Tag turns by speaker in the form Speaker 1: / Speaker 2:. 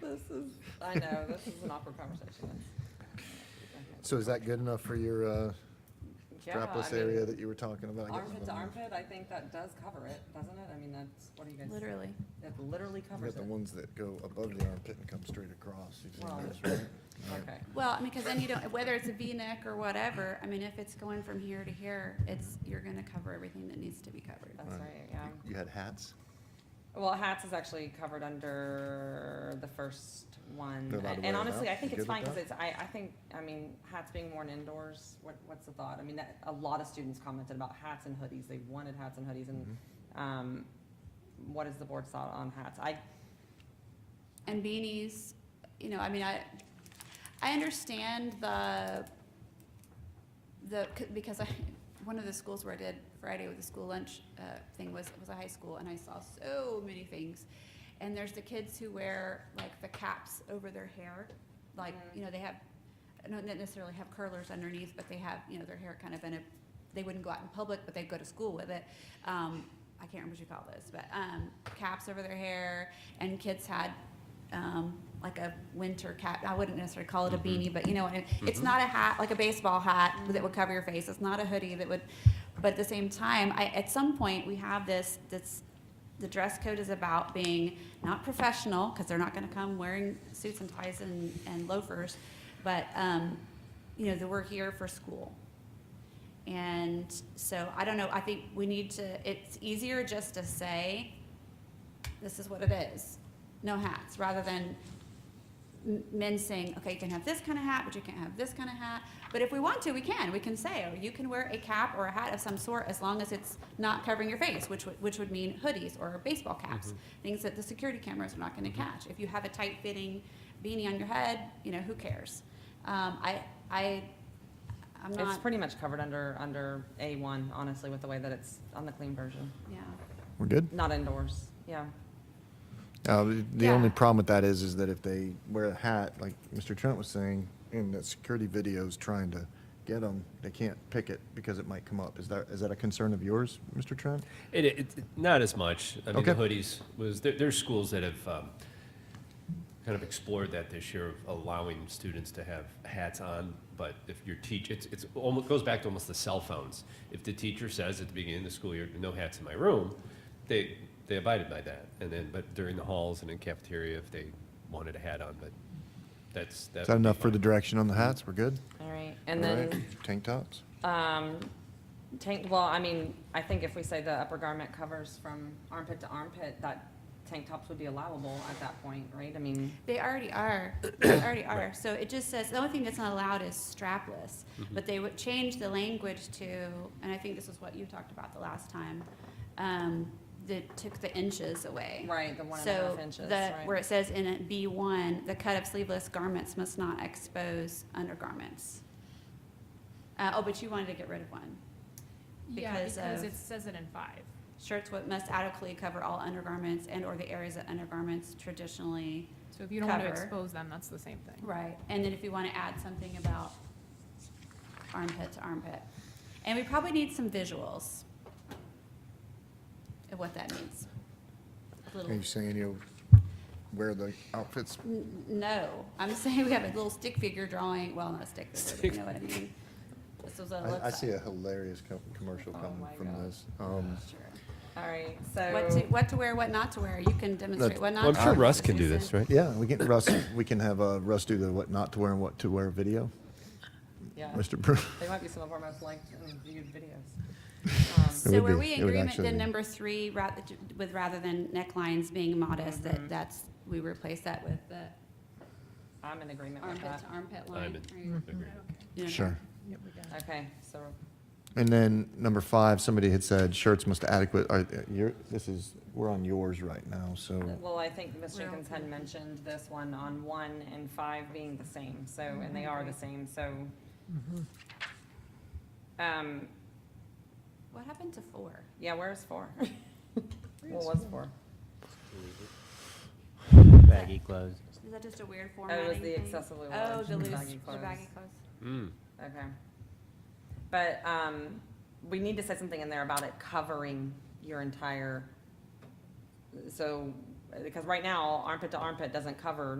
Speaker 1: this is, I know, this is an awkward conversation.
Speaker 2: So is that good enough for your uh,
Speaker 1: Yeah,
Speaker 2: strapless
Speaker 1: I mean,
Speaker 2: area that you were talking about? I
Speaker 1: Armpit
Speaker 2: guess.
Speaker 1: to armpit, I think that does cover it, doesn't it? I mean, that's, what do you guys?
Speaker 3: Literally.
Speaker 1: It literally
Speaker 2: You got
Speaker 1: covers
Speaker 2: the
Speaker 1: it.
Speaker 2: ones that go above the armpit and come straight across. You've seen
Speaker 1: Well,
Speaker 2: those, right?
Speaker 1: Okay.
Speaker 3: Well, I mean, because then you don't, whether it's a V-neck or whatever, I mean, if it's going from here to here, it's, you're gonna cover everything that needs to be covered.
Speaker 1: That's right, yeah.
Speaker 2: You had hats?
Speaker 1: Well, hats is actually covered under the first one.
Speaker 2: They're allowed to
Speaker 1: And-
Speaker 2: wear
Speaker 1: And
Speaker 2: it
Speaker 1: honestly,
Speaker 2: out?
Speaker 1: I think
Speaker 2: You
Speaker 1: it's
Speaker 2: good with
Speaker 1: fine because
Speaker 2: that?
Speaker 1: it's, I, I think, I mean, hats being worn indoors, what, what's the thought? I mean, that, a lot of students commented about hats and hoodies. They wanted hats and hoodies
Speaker 2: Mm-hmm.
Speaker 1: and, um, what is the board's thought on hats? I,
Speaker 3: And beanies, you know, I mean, I, I understand the, the, c- because I, one of the schools where I did Friday with the school lunch, uh, thing was, was a high school, and I saw so many things. And there's the kids who wear, like, the caps over their hair, like, you know, they have, not necessarily have curlers underneath, but they have, you know, their hair kind of in a, they wouldn't go out in public, but they'd go to school with it. Um, I can't remember what you call those, but, um, caps over their hair, and kids had, um, like a winter cap, I wouldn't necessarily call it a beanie, but you know, what I- it's not a hat, like a baseball hat that would cover your face, it's not a hoodie that would, but at the same time, I, at some point, we have this, this, the dress code is about being not professional, because they're not gonna come wearing suits and ties and, and loafers, but, um, you know, that we're here for school. And so, I don't know, I think we need to, it's easier just to say, this is what it is, no hats, rather than m- men saying, okay, you can have this kind of hat, but you can't have this kind of hat. But if we want to, we can, we can say, oh, you can wear a cap or a hat of some sort as long as it's not covering your face, which would, which would mean hoodies or baseball caps,
Speaker 1: Mm-hmm.
Speaker 3: things that the security cameras are not gonna catch. If you have a tight-fitting beanie on your head, you know, who cares? Um, I, I, I'm
Speaker 1: it's
Speaker 3: not,
Speaker 1: pretty much covered under, under A one, honestly, with the way that it's on the clean version.
Speaker 3: yeah,
Speaker 2: We're good?
Speaker 1: Not indoors, yeah.
Speaker 2: Uh, the- The only
Speaker 3: Yeah.
Speaker 2: problem with that is, is that if they wear a hat, like Mr. Trent was saying, in the security videos trying to get them, they can't pick it because it might come up. Is that, is that a concern of yours, Mr. Trent?
Speaker 4: It, it, it- not as much. I mean, the
Speaker 2: Okay.
Speaker 4: hoodies was, there, there's schools that have, um, kind of explored that this year, of allowing students to have hats on, but if your teach, it's, it's almost, goes back to almost the cell phones. If the teacher says at the beginning of the school year, no hats in my room, they, they abided by that. And then, but during the halls and in cafeteria, if they wanted a hat on, but that's, that's.
Speaker 2: Is that enough for the direction on the hats? We're good?
Speaker 1: All right, and
Speaker 2: All right.
Speaker 1: then
Speaker 2: Tank tops?
Speaker 1: Um, tank, well, I mean, I think if we say the upper garment covers from armpit to armpit, that tank tops would be allowable at that point, right? I mean,
Speaker 3: they already are, they already are. So it just says, the only thing that's not allowed is strapless, but they would change the language to, and I think this is what you talked about the last time, um, that took the inches away.
Speaker 1: right, the one and a
Speaker 3: So
Speaker 1: half inches,
Speaker 3: the, where
Speaker 1: right?
Speaker 3: it says in it B one, the cut of sleeveless garments must not expose undergarments. Uh, oh, but you wanted to get rid of one.
Speaker 5: Yeah,
Speaker 3: because
Speaker 5: because
Speaker 3: of-
Speaker 5: it says it in five.
Speaker 3: Shirts what must adequately cover all undergarments and or the areas of undergarments traditionally.
Speaker 5: So if you don't want to
Speaker 3: Cover.
Speaker 5: expose them, that's the same thing.
Speaker 3: Right. And then if you want to add something about armpit to armpit. And we probably need some visuals of what that means. A
Speaker 2: Are
Speaker 3: little-
Speaker 2: you saying you'll wear the outfits?
Speaker 3: N- No, I'm saying we have a little stick figure drawing, well, not a stick figure, but you know what I mean? This was a
Speaker 2: I, I
Speaker 3: website.
Speaker 2: see a hilarious co- commercial
Speaker 1: Oh
Speaker 2: coming
Speaker 1: my
Speaker 2: from
Speaker 1: God.
Speaker 2: this. Um,
Speaker 3: Sure.
Speaker 1: All right,
Speaker 3: What to,
Speaker 1: so,
Speaker 3: what to wear, what not to wear, you can demonstrate what not
Speaker 4: Well,
Speaker 3: to
Speaker 4: I'm
Speaker 3: wear.
Speaker 4: sure Russ can do
Speaker 3: Susan.
Speaker 4: this, right?
Speaker 2: Ah. Yeah, we get Russ, we can have uh, Russ do the what not to wear and what to wear video.
Speaker 1: yeah,
Speaker 2: Mr. Brew.
Speaker 1: they might be some of our most liked and viewed videos. Um,
Speaker 2: It
Speaker 3: So
Speaker 2: would
Speaker 3: were
Speaker 2: be-
Speaker 3: we in
Speaker 2: it would
Speaker 3: agreement
Speaker 2: actually
Speaker 3: then
Speaker 2: be.
Speaker 3: number three, ra- with rather than necklines being modest, that that's, we replace that with the
Speaker 1: I'm in agreement with
Speaker 3: armpit
Speaker 1: that.
Speaker 3: to armpit
Speaker 4: I'm
Speaker 3: line?
Speaker 4: in.
Speaker 3: Are you-
Speaker 4: Agreed.
Speaker 3: you know,
Speaker 2: Sure.
Speaker 1: Okay, so,
Speaker 2: And then number five, somebody had said shirts must adequate, are, you this is, we're on yours right now, so.
Speaker 1: well, I think Ms.
Speaker 3: We're
Speaker 1: Jenkins had
Speaker 3: okay.
Speaker 1: mentioned this one on one and five being the same, so, and they are the same, so. Mm-hmm. Um,
Speaker 3: What happened to four?
Speaker 1: yeah, where's four? What was four?
Speaker 6: baggy clothes.
Speaker 3: Is that just a weird
Speaker 1: Oh,
Speaker 3: formatting
Speaker 1: it was the
Speaker 3: thing?
Speaker 1: excessively
Speaker 3: Oh,
Speaker 1: large.
Speaker 3: the loose,
Speaker 1: baggy
Speaker 3: the
Speaker 1: clothes.
Speaker 3: baggy clothes.
Speaker 4: Mm.
Speaker 1: Okay. But, um, we need to say something in there about it covering your entire, so, because right now, armpit to armpit doesn't cover